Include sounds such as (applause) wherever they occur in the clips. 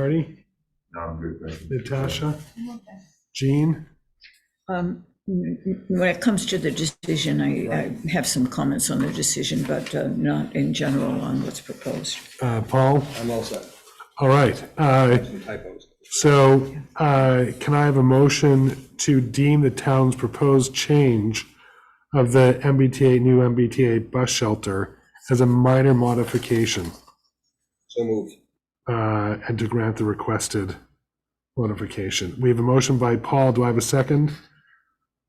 Marty, No, I'm good, thank you. Natasha, Jean? Um, m- m- When it comes to the decision, I, I have some comments on the decision, but uh, not in general on what's proposed. Uh, Paul? I'm all set, All right. uh, some typos. So uh, can I have a motion to deem the town's proposed change of the MBTA, new MBTA bus shelter as a minor modification So moved. uh, and to grant the requested modification? We have a motion by Paul. Do I have a second?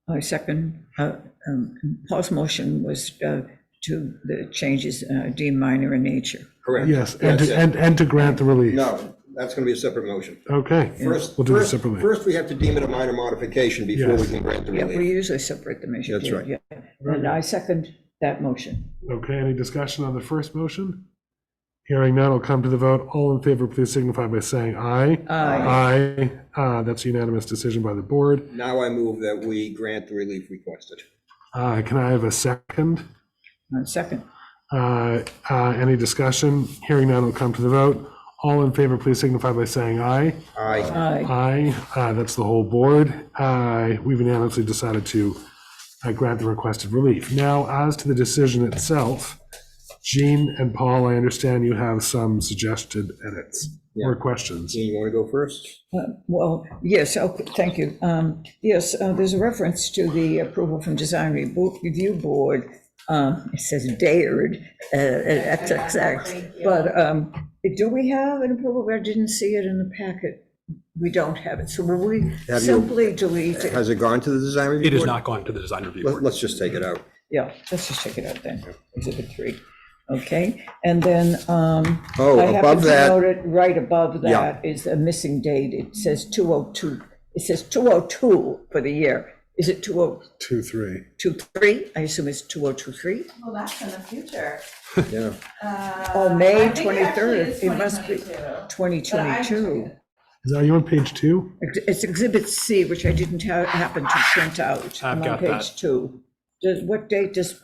I second, uh, um, Paul's motion was uh, to the changes uh, deemed minor in nature. Correct. Yes, and That's to, it. and and to grant the relief. No, that's going to be a separate motion. Okay. First, We'll do this first, separately. first we have to deem it a minor modification before we Yes. can grant the Yeah, we relief. usually separate the measure. That's right. yeah. And I second that motion. Okay, any discussion on the first motion? Hearing none, I'll come to the vote. All in favor, please signify by saying aye. Aye. Aye, Uh, that's a unanimous decision by the board. Now I move that we grant the relief requested. Uh, Can I have a second? I second, Uh, uh, Any discussion? Hearing none, I'll come to the vote. All in favor, please signify by saying aye. Aye, aye, Aye, Uh, that's the whole board. Uh, We've unanimously decided to uh, grant the requested relief. Now, as to the decision itself, Jean and Paul, I understand you have some suggested edits or questions. Jean, you want to go first? Uh, well, yes, okay, thank you. Um, Yes, uh, there's a reference to the approval from Design Rebo- Review Board. Um, It says dared, uh, uh, XXX, but um, do we have an approval? I didn't see it in the packet. We don't have it, so will we Have you- simply delete it? Has it gone to the design review It is board? not going to the design review Let- board. Let's just take it out. Yeah, let's just check it out then, exhibit three, okay? And then, um. Oh, I happened above to that- note it Right above Yeah. that is a missing date, it says two oh two, it says two oh two for the year. Is it two oh Two, three. two three? I assume it's two oh two three? Well, that's in the future. Yeah, Oh, May Uh, I think it actually twenty-third, is it must be 2022. twenty twenty-two. Is that you on page two? It's exhibit C, which I didn't ha- happen to print out. I've I'm got On page that. two. Does, what date does,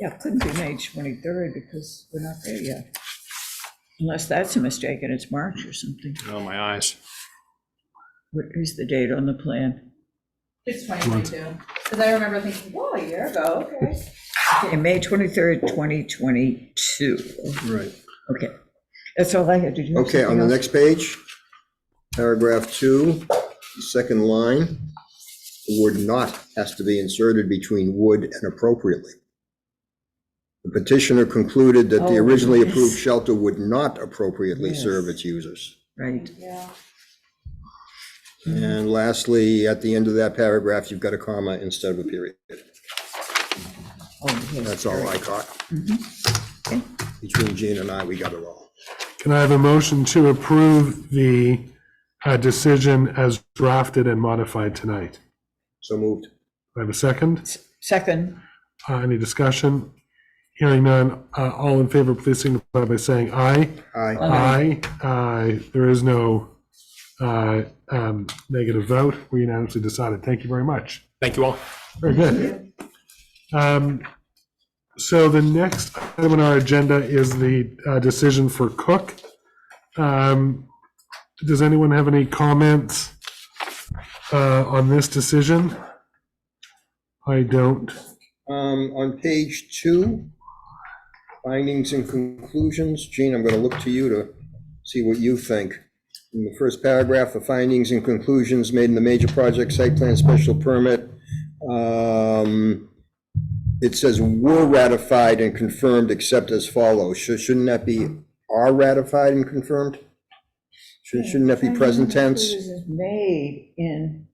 yeah, it couldn't be May 23rd because we're not there yet. Unless that's a mistake and it's March or something. Oh, my eyes. What is the date on the plan? It's 2022, because I remember thinking, whoa, a year ago, okay. (laughs) Okay, May 23rd, 2022. right. Okay. That's all I had to do. Okay, on the next page, paragraph two, second line, the word "not" has to be inserted between "would" and "appropriately." The petitioner concluded that the Oh, originally yes. approved shelter would not appropriately Yes. serve its users. Right. Yeah. Mm-hmm. And lastly, at the end of that paragraph, you've got a comma instead of a period. Oh, yes. That's all I caught. Mm-hmm. Okay. Between Gene and I, we got it all. Can I have a motion to approve the uh, decision as drafted and modified tonight? So moved. Do I have a second? Second, Uh, Any discussion? Hearing none, uh, all in favor, please signify by saying aye. Aye. Aye. Aye. There is no uh, um, negative vote. We unanimously decided. Thank you very much. Thank you all. Very good. Um, So the next item on our agenda is the uh, decision for Cook. Um, Does anyone have any comments uh, on this decision? I don't. Um, on page two, findings and conclusions, Gene, I'm gonna look to you to see what you think. In the first paragraph, the findings and conclusions made in the major project site plan special permit, um, it says were ratified and confirmed except as follows. Shou- Shouldn't that be are ratified and confirmed? Shouldn't, shouldn't that be present tense? Mm-hmm. this is made in,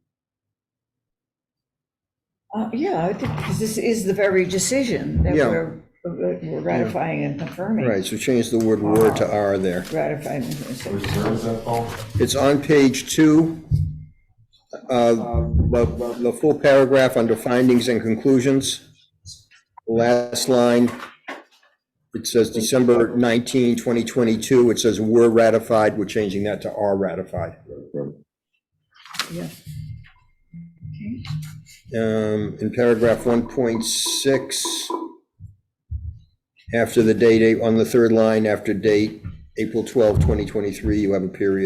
Uh, yeah, I think, because this is the very decision that Yeah. we're uh, we're ratifying and confirming. Right, so change the word were to are there. Ratifying. and confirming. Where is that, Paul? It's on page two, uh, the the full paragraph under findings and conclusions. Last line, it says December 19, 2022, it says were ratified, we're changing that to are ratified. Yeah. Um, In paragraph 1.6, after the date, on the third line, after date, April 12, 2023, you have a period.